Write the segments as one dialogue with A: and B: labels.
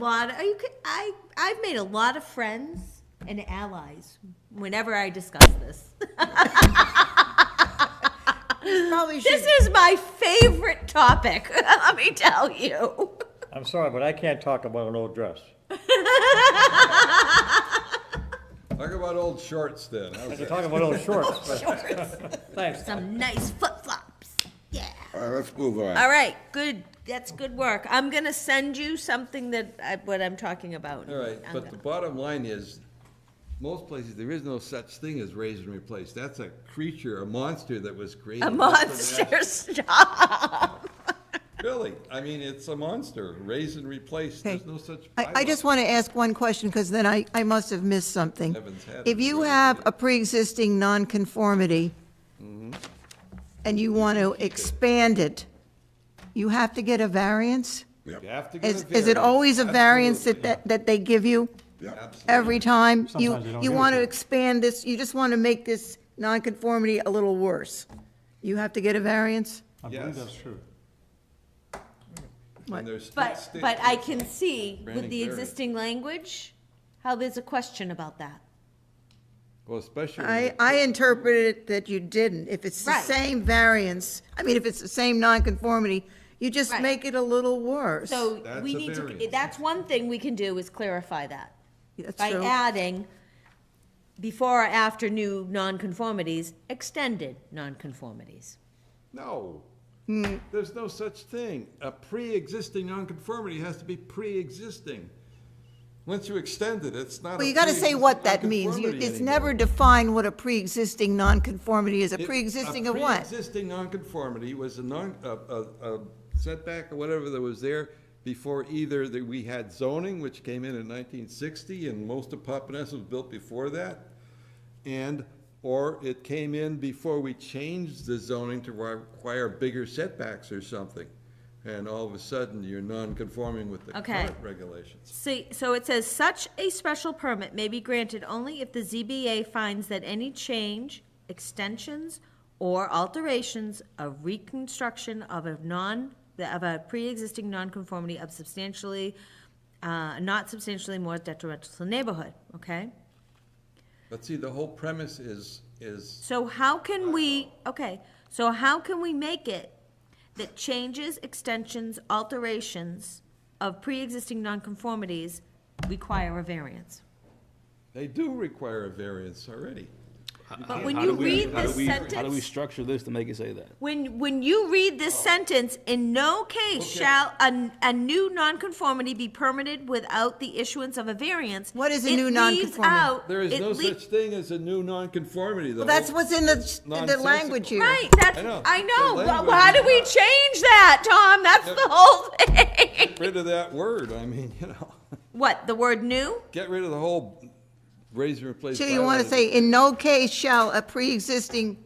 A: lot. Of, you could, I I've made a lot of friends and allies whenever I discuss this.
B: Probably
A: This
B: should,
A: is my favorite topic. Let me tell you.
C: I'm sorry, but I can't talk about an old dress.
D: Talk about old shorts then.
C: I
D: How's
C: can
D: that?
C: talk about old shorts, but, thanks.
A: Some nice flip flops. Yeah.
E: All right, let's move on.
A: All right. Good. That's good work. I'm gonna send you something that I, what I'm talking about.
D: All right,
A: I'm
D: but the
A: gonna-
D: bottom line is, most places, there is no such thing as raise and replace. That's a creature, a monster that was created.
A: a
D: just for that.
A: monster stop.
D: Really, I mean, it's a monster. Raise and replace, there's no such.
B: I, I just want to ask one question, because then I, I must have missed something.
D: Heavens, heavens,
B: If you
D: really.
B: have a pre-existing nonconformity,
D: Mm-hmm.
B: and you want to expand it, you have to get a variance?
D: bylaw. You have to get a
B: Is, is it
D: variance,
B: always a variance that,
D: absolutely.
B: that, that they give you?
E: Yep.
B: every time. You,
C: Sometimes they don't
B: you
C: give it
B: want
C: to
B: to
C: you.
B: expand this, you just want to make this nonconformity a little worse. You have to get a variance?
C: I believe
D: Yes.
C: that's true.
D: And there's sti-
A: But
D: sti-
A: but I can see with
D: Branding
A: the
D: variance.
A: existing language how there's a question about that.
D: Well, especially. when
B: I,
D: it-
B: I interpreted it that you didn't. If it's the
A: Right.
B: same variance, I mean, if it's the same nonconformity, you just
A: Right.
B: make it a little worse.
A: So
D: That's
A: we
D: a
A: need to, eh,
D: variance.
A: that's one thing we can do is clarify that.
B: That's
A: By
B: true.
A: adding before or after new nonconformities, extended nonconformities.
D: No,
B: Hmm.
D: there's no such thing. A pre-existing nonconformity has to be pre-existing. Once you extend it, it's not.
B: Well,
D: a
B: you got to say what that
D: pre-existing
B: means. You-
D: nonconformity
B: It's
D: anymore.
B: never defined what a pre-existing nonconformity is. A
D: It-
B: pre-existing of what?
D: pre-existing nonconformity was a non, a, a, a setback or whatever that was there before either that we had zoning, which came in in nineteen sixty, and most of Papaneset was built before that. And, or it came in before we changed the zoning to require bigger setbacks or something. And all of a sudden, you're non-conforming with the
A: Okay.
D: current regulations.
A: See, so it says such a special permit may be granted only if the ZBA finds that any change, extensions, or alterations of reconstruction of a non, of a pre-existing nonconformity of substantially, uh, not substantially more detrimental to the neighborhood, okay?
D: But see, the whole premise is, is,
A: So how can we, okay, so how can we make it that changes, extensions, alterations of pre-existing nonconformities require a variance?
D: they do require a variance already.
A: But when
F: How
A: you
F: do we-
A: read
F: how do
A: this
F: we- How do we
A: sentence,
F: structure this to make it say that?
A: when, when you read this sentence, in no case
D: Okay.
A: shall a, a new nonconformity be permitted without the issuance of a variance.
B: What is a
A: It
B: new
A: leaves
B: nonconformity?
A: out-
D: There is
A: it
D: no
A: lea-
D: such thing as a new nonconformity, though.
B: Well, that's what's in the, the
D: nonsensical.
B: language here.
A: Right, that's,
D: I know.
A: I know,
D: The
A: Wh-
D: language
A: why
D: is
A: do we
D: not-
A: change that, Tom? That's
D: Yeah.
A: the whole thing.
D: Get rid of that word, I mean, you know,
A: What, the word new?
D: get rid of the whole raise and replace.
B: So you want
D: bylaw.
B: to say, in no case shall a pre-existing,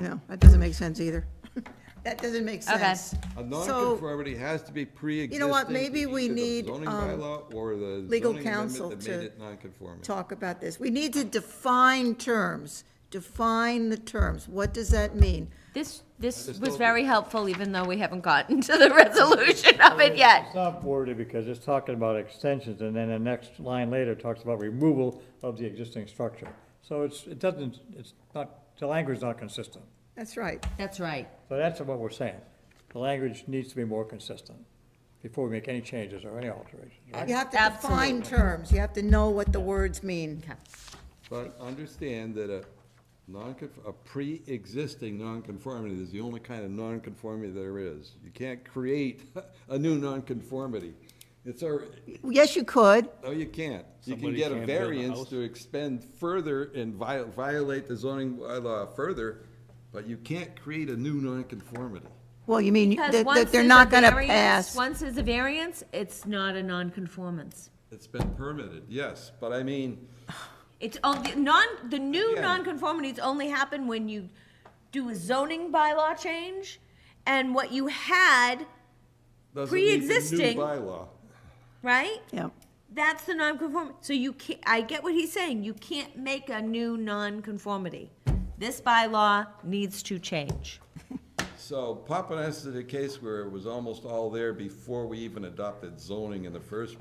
B: no, that doesn't make sense either. That doesn't make
A: Okay.
B: sense.
D: A
B: So,
D: nonconformity has to be pre-existing.
B: what,
D: to
B: maybe we
D: either the
B: need,
D: Zoning
B: um,
D: bylaw or the
B: legal
D: zoning amendment
B: counsel
D: that
B: to
D: made it nonconforming.
B: talk about this. We need to define terms, define the terms. What does that mean?
A: This, this
D: just
A: was
D: told
A: very helpful, even though we haven't gotten to the resolution of it yet.
C: It's not wordy because it's talking about extensions and then the next line later talks about removal of the existing structure. So it's, it doesn't, it's not, the language's not consistent.
B: That's right.
A: That's right.
C: So that's what we're saying. The language needs to be more consistent before we make any changes or any alterations.
B: You have to define terms. You have to know what the words mean.
D: But understand that a nonconf, a pre-existing nonconformity is the only kind of nonconformity there is. You can't create a new nonconformity. It's our,
B: Yes, you could.
D: No, you can't. You can
F: Somebody
D: get a
F: can't build a
D: variance
F: house?
D: to expend further and vi- violate the zoning bylaw further, but you can't create a new nonconformity.
B: Well, you mean
A: Because
B: that,
A: once
B: that they're
A: there's
B: not
A: a
B: going to
A: variance-
B: pass.
A: Once there's a variance, it's not a nonconformance.
D: It's been permitted, yes, but I mean,
A: It's, on- the non, the new
D: Yeah.
A: nonconformities only happen when you do a zoning bylaw change, and what you had,
D: doesn't need the new
A: Pre-existing.
D: bylaw.
A: right?
B: Yeah.
A: That's the nonconform, so you can't, I get what he's saying, you can't make a new nonconformity. This bylaw needs to change.
D: So Papaneset is a case where it was almost all there before we even adopted zoning in the first